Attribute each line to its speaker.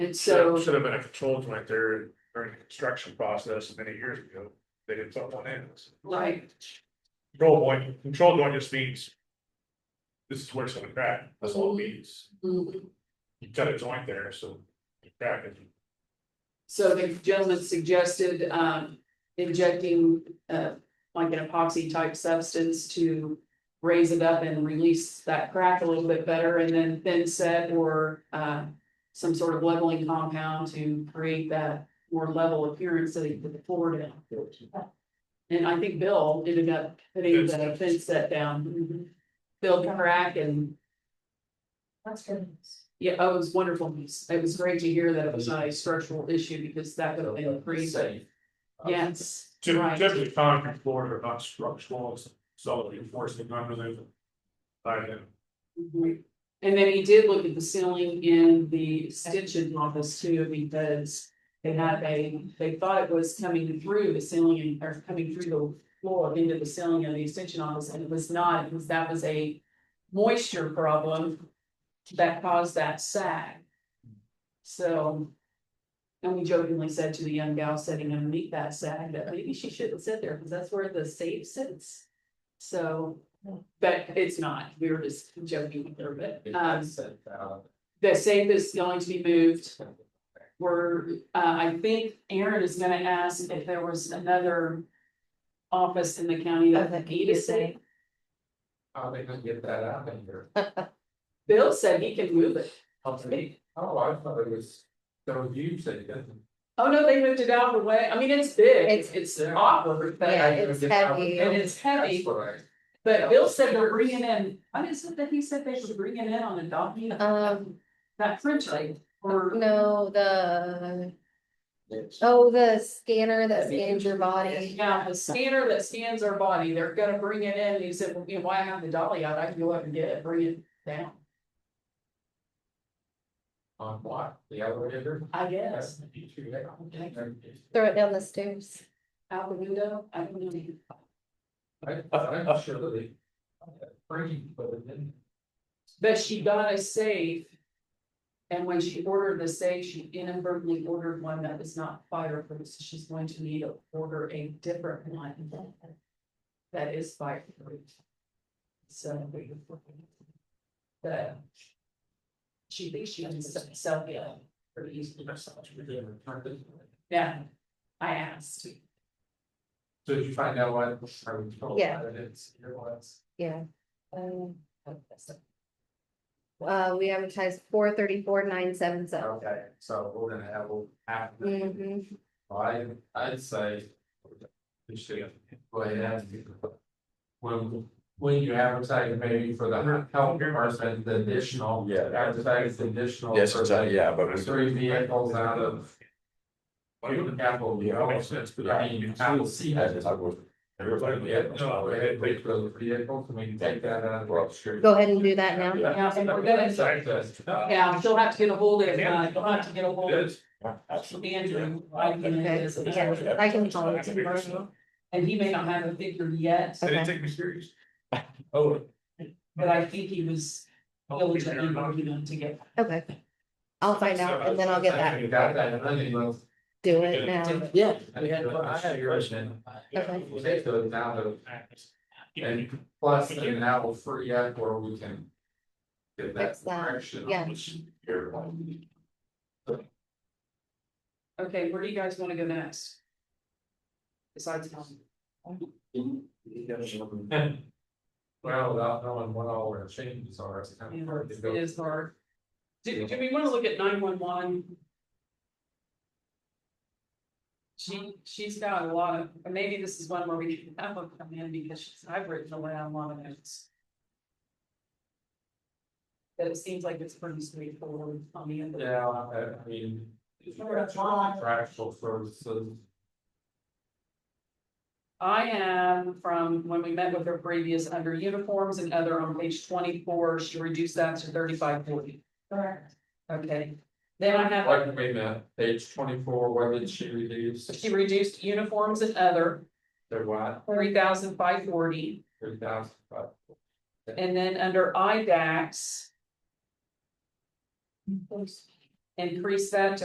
Speaker 1: And so,
Speaker 2: Should have been a control joint there during the construction process many years ago. They didn't put one in.
Speaker 1: like,
Speaker 2: Control point, control joint just means. This is where it's gonna crack. That's all it means.
Speaker 1: mm,
Speaker 2: You cut a joint there, so. you Crack it.
Speaker 1: so the gentleman suggested, um, injecting, uh, like an epoxy type substance to. Raise it up and release that crack a little bit better and then thin set or, uh, some sort of leveling compound to create that. More level appearance so that you put the floor down. And I think Bill ended up putting the fence set down. Mhm. Bill crack and,
Speaker 3: That's good.
Speaker 1: yeah, oh, it was wonderful. It was great to hear that it was not a structural issue because that would have been pretty safe. Yes,
Speaker 2: Typ-
Speaker 1: right.
Speaker 2: Typically, concrete floors are not structural, it's solid reinforcing under them. By then,
Speaker 1: Mhm. And then he did look at the ceiling in the extension office too, because they had a, they thought it was coming through the ceiling and- or coming through the floor into the ceiling of the extension office, and it was not, it was, that was a moisture problem that caused that sag. So, and we jokingly said to the young gal sitting underneath that sag that maybe she shouldn't sit there, because that's where the safe sits. So, but it's not, we were just joking with her, but, um, the safe is going to be moved. We're, uh, I think Aaron is gonna ask if there was another office in the county that needed safe.
Speaker 4: How they gonna get that out of here?
Speaker 1: Bill said he can move it.
Speaker 4: Oh, I thought it was, there was you said that.
Speaker 1: Oh, no, they moved it out of the way. I mean, it's big,
Speaker 3: It's-
Speaker 1: it's awkward,
Speaker 3: Yeah,
Speaker 1: but,
Speaker 3: it's heavy.
Speaker 1: and it's heavy.
Speaker 4: That's what I-
Speaker 1: But Bill said they're bringing in, what is it that he said they were bringing in on a donkey?
Speaker 3: Um,
Speaker 1: That French lady or
Speaker 3: no, the, oh, the scanner that scans your body.
Speaker 1: Yeah, the scanner that scans our body, they're gonna bring it in, and he said, well, you know, why have the dolly out, I can go up and get it, bring it down,
Speaker 4: On what, the elevator?
Speaker 1: I guess,
Speaker 4: You two, they all-
Speaker 3: Throw it down the stairs.
Speaker 1: out the window, I don't know.
Speaker 4: I, I'm sure that they. Bringing, but it didn't.
Speaker 1: But she got a safe. And when she ordered the safe, she inadvertently ordered one that was not fireproof, so she's going to need to order a different one that is fireproof. So. But. She thinks she can s- sell it pretty easily herself. Yeah, I asked.
Speaker 4: So did you find out what I was told?
Speaker 3: Yeah.
Speaker 4: That it's, it was.
Speaker 3: Yeah. Um, Uh, we advertised four thirty-four, nine, seven, seven.
Speaker 4: Okay, so we're gonna have a half.
Speaker 3: Mhm.
Speaker 4: I, I'd say. You should go ahead and. When, when you advertise maybe for the health department, the additional.
Speaker 5: Yeah.
Speaker 4: Advertise the additional.
Speaker 5: Yes,
Speaker 4: for
Speaker 5: exactly, yeah,
Speaker 4: the
Speaker 5: but.
Speaker 4: Three vehicles out of. Human capital development, but I mean, I will see that.
Speaker 5: I would-
Speaker 4: Everybody, yeah, no, we had wait for the vehicles, I mean, take that out of.
Speaker 3: Go ahead and do that now.
Speaker 5: Yeah.
Speaker 1: Yeah, and we're gonna, yeah, she'll have to get a hold of, uh, she'll have to get a hold of
Speaker 5: Yeah, absolutely.
Speaker 1: Andrew, I can,
Speaker 3: Okay, yeah, I can call it tomorrow.
Speaker 1: and he may not have a figure yet.
Speaker 2: They
Speaker 3: Okay.
Speaker 2: didn't take me serious. Oh.
Speaker 1: But I think he was diligently working on to get.
Speaker 3: Okay. I'll find out and then I'll get that,
Speaker 4: You got that, and then you will.
Speaker 3: do it now.
Speaker 6: Yeah.
Speaker 4: I had, I had a question.
Speaker 3: Okay.
Speaker 4: We take those out of. And plus, and that will free up where we can. Get that
Speaker 3: Fix that,
Speaker 4: direction.
Speaker 3: yeah.
Speaker 1: Okay, where do you guys wanna go next? Besides home.
Speaker 4: Well, without knowing what all our changes are, it's kind of hard to
Speaker 1: It
Speaker 4: go.
Speaker 1: is hard. Do, do we wanna look at nine one one? She, she's got a lot of, and maybe this is one where we can have a come in because she's, I've written a lot of notes. But it seems like it's pretty straightforward on the end. of it.
Speaker 4: Yeah, I I mean. if you got Contractual services,
Speaker 1: I am from when we met with her previous under uniforms and other on page twenty-four, she reduced that to thirty-five forty.
Speaker 3: Correct.
Speaker 1: Okay, then I have,
Speaker 4: like we met, page twenty-four, where did she reduce?
Speaker 1: she reduced uniforms and other,
Speaker 4: There what,
Speaker 1: three thousand five forty,
Speaker 4: three thousand, but
Speaker 1: and then under IDAX. increase that to